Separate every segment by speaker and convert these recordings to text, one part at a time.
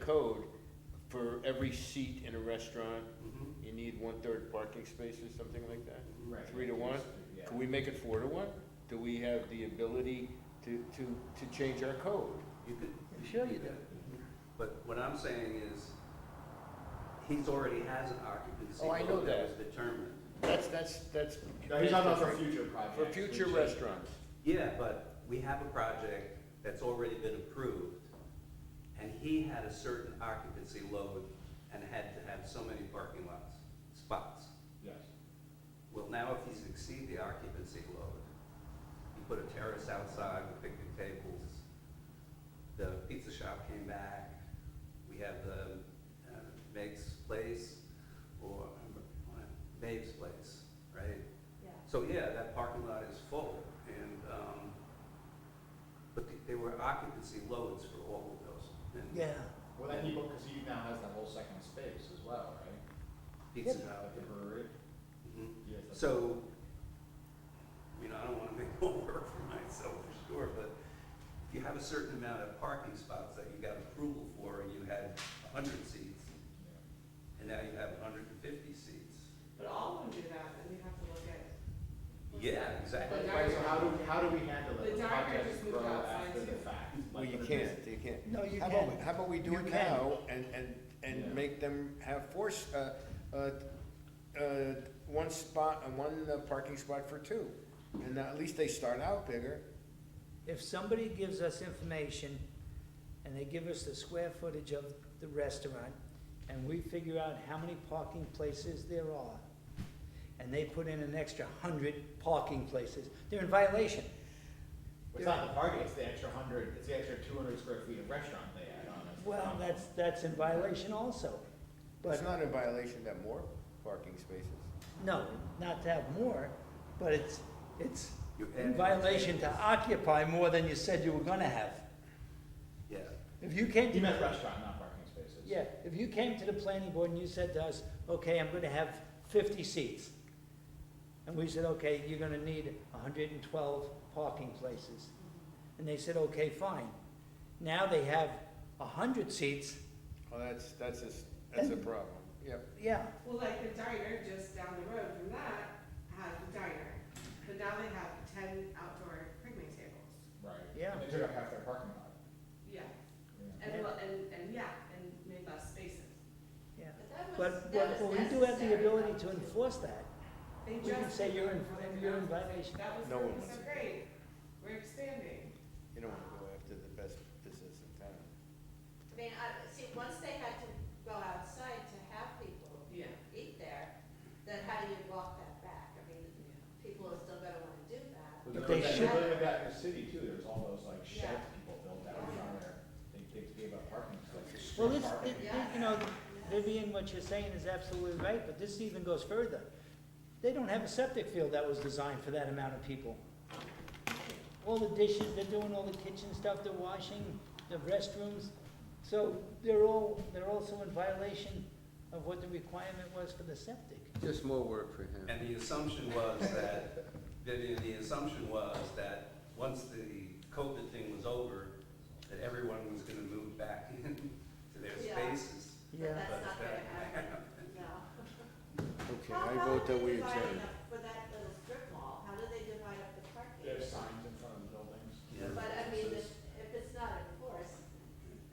Speaker 1: code, for every seat in a restaurant,
Speaker 2: Mhm.
Speaker 1: you need one-third parking spaces, something like that?
Speaker 2: Right.
Speaker 1: Three to one?
Speaker 2: Yeah.
Speaker 1: Can we make it four to one? Do we have the ability to, to, to change our code?
Speaker 2: You could,
Speaker 1: Sure you do.
Speaker 2: but what I'm saying is, he's already has an occupancy
Speaker 1: Oh, I know
Speaker 2: load that was
Speaker 1: that.
Speaker 2: determined.
Speaker 1: That's, that's, that's.
Speaker 3: No, he's talking about for future projects.
Speaker 1: For future
Speaker 3: which-
Speaker 1: restaurants.
Speaker 2: Yeah, but we have a project that's already been approved, and he had a certain occupancy load and had to have so many parking lots, spots.
Speaker 3: Yes.
Speaker 2: Well, now if he's exceed the occupancy load, he put a terrace outside with picnic tables, the pizza shop came back, we have the uh, Meg's Place, or, uh, Maeve's Place, right?
Speaker 4: Yeah.
Speaker 2: So, yeah, that parking lot is full, and, um, but th- there were occupancy loads for all of those. and
Speaker 3: Well, then he, because he now has that whole second space as well, right?
Speaker 2: Pizza
Speaker 3: At the
Speaker 2: Hut.
Speaker 3: brewery.
Speaker 2: Mhm.
Speaker 3: he has that-
Speaker 2: So, you know, I don't wanna make more work for myself for sure, but if you have a certain amount of parking spots that you got approval for and you had hundred seats,
Speaker 3: Yeah.
Speaker 2: and now you have hundred and fifty seats.
Speaker 4: But all of them do that, and we have to look at.
Speaker 2: Yeah, exactly.
Speaker 4: But
Speaker 3: Right, so how do, how do we handle it?
Speaker 4: The
Speaker 3: How
Speaker 4: director
Speaker 3: does
Speaker 4: just
Speaker 3: it
Speaker 4: moved
Speaker 3: grow
Speaker 4: outside
Speaker 3: after the
Speaker 4: too.
Speaker 3: fact?
Speaker 1: Well,
Speaker 3: Like,
Speaker 1: you
Speaker 3: what
Speaker 1: can't,
Speaker 3: is-
Speaker 1: you can't.
Speaker 5: No, you
Speaker 1: How about
Speaker 5: can.
Speaker 1: we- How about we do
Speaker 5: You
Speaker 1: it
Speaker 5: can.
Speaker 1: now and, and,
Speaker 3: Yeah.
Speaker 1: and make them have force, uh, uh, uh, one spot, uh, one uh, parking spot for two? And at least they start out bigger.
Speaker 5: If somebody gives us information and they give us the square footage of the restaurant and we figure out how many parking places there are and they put in an extra hundred parking places, they're in violation.
Speaker 3: It's not the parking, it's the extra hundred, it's the extra two hundred square feet of restaurant they add on. as the
Speaker 5: Well,
Speaker 3: problem.
Speaker 5: that's, that's in violation also.
Speaker 1: It's
Speaker 5: But,
Speaker 1: not in violation that more parking spaces.
Speaker 5: no, not to have more, but it's, it's
Speaker 2: You
Speaker 5: in
Speaker 2: add-
Speaker 5: violation to occupy more than you said you were gonna have.
Speaker 2: Yeah,
Speaker 5: If you can't.
Speaker 3: He meant restaurant, not parking spaces.
Speaker 5: Yeah, if you came to the planning board and you said to us, okay, I'm gonna have fifty seats. And we said, okay, you're gonna need hundred and twelve parking places. And they said, okay, fine. Now they have hundred seats,
Speaker 1: Well, that's, that's a, s- that's a problem, yep.
Speaker 5: yeah,
Speaker 4: Well, like the diner just down the road from that has the diner, but now they have ten outdoor picnic tables.
Speaker 3: Right.
Speaker 5: Yeah.
Speaker 3: And they took up half their parking lot.
Speaker 4: Yeah,
Speaker 3: Yeah.
Speaker 4: and, well, and, and, yeah, and made less spaces.
Speaker 5: yeah.
Speaker 6: But that was,
Speaker 5: But,
Speaker 6: that
Speaker 5: but but
Speaker 6: was
Speaker 5: we do have the
Speaker 6: necessary
Speaker 5: ability to
Speaker 6: though, too.
Speaker 5: enforce that.
Speaker 4: They
Speaker 5: We can
Speaker 4: just
Speaker 5: say you're in-
Speaker 4: did it.
Speaker 5: you're in violation.
Speaker 4: That was
Speaker 1: No one
Speaker 4: working
Speaker 1: wants
Speaker 4: so
Speaker 1: it.
Speaker 4: great, we're expanding.
Speaker 1: You don't wanna go after the best business in town.
Speaker 6: I mean, I, see, once they had to go outside to have people
Speaker 4: Yeah.
Speaker 6: eat there, then how do you walk that back? I mean, people are still gonna wanna do that.
Speaker 3: But
Speaker 5: But
Speaker 3: there
Speaker 5: they
Speaker 3: was that-
Speaker 5: should-
Speaker 3: there was that in the city too, there's all those like shed
Speaker 6: Yeah.
Speaker 3: people built out around there, they, they gave up parking spaces.
Speaker 5: Well, this,
Speaker 3: Parking.
Speaker 5: it- it- you know, Vivian, what you're saying is absolutely right, but this even goes further. They don't have a septic field that was designed for that amount of people. All the dishes, they're doing all the kitchen stuff, they're washing, the restrooms. So they're all, they're also in violation of what the requirement was for the septic.
Speaker 1: Just more work for him.
Speaker 2: and the assumption was that, Vivian, the assumption was that once the COVID thing was over, that everyone was gonna move back into their
Speaker 6: Yeah.
Speaker 2: spaces.
Speaker 6: But that's
Speaker 2: But
Speaker 6: not
Speaker 2: that-
Speaker 6: gonna happen, no.
Speaker 1: Okay, I
Speaker 6: How- how
Speaker 1: vote
Speaker 6: do
Speaker 1: that
Speaker 6: they
Speaker 1: we
Speaker 6: divide
Speaker 1: adjourn.
Speaker 6: it up For that little strip mall, how do they divide up the parking?
Speaker 3: They have signs in front of the buildings.
Speaker 2: Yeah.
Speaker 6: But I mean, if, if it's not enforced,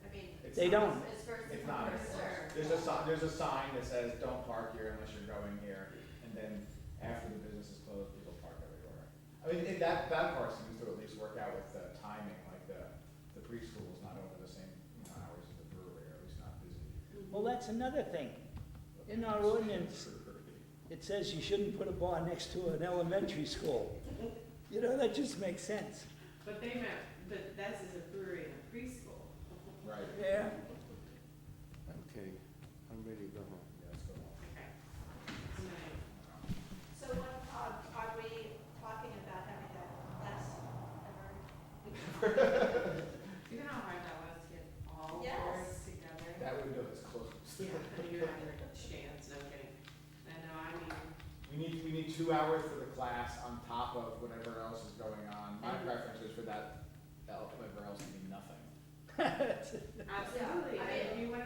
Speaker 6: I mean.
Speaker 3: It's
Speaker 5: They
Speaker 3: not-
Speaker 5: don't.
Speaker 6: It's first
Speaker 3: It's
Speaker 6: come,
Speaker 3: not,
Speaker 6: first served.
Speaker 3: there's a sign, there's a sign that says, don't park here unless you're going here, and then after the business is closed, people park everywhere. I mean, it- that, that part seems to at least work out with the timing, like the, the preschool is not over the same, you know, hours as the brewery, or at least not busy.
Speaker 5: Well, that's another thing. In our ordinance,
Speaker 3: Brewery.
Speaker 5: it says you shouldn't put a bar next to an elementary school. You know, that just makes sense.
Speaker 4: But they meant, but that's is a brewery and a preschool.
Speaker 3: Right,
Speaker 5: Yeah.
Speaker 1: Okay, I'm ready to go home.
Speaker 3: yeah, let's go on.
Speaker 4: Okay. Tonight.
Speaker 6: So what, are, are we talking about having that last ever?
Speaker 4: You know how hard that was to get all
Speaker 6: Yes.
Speaker 4: boards together?
Speaker 3: That window is closed.
Speaker 4: Yeah, and you have your chance, no kidding. I know, I mean,
Speaker 3: We need, we need two hours for the class on top of whatever else is going on, my
Speaker 6: And-
Speaker 3: preference is for that, that whatever else to be nothing.
Speaker 4: Absolutely,
Speaker 6: I mean-
Speaker 4: if you wanna go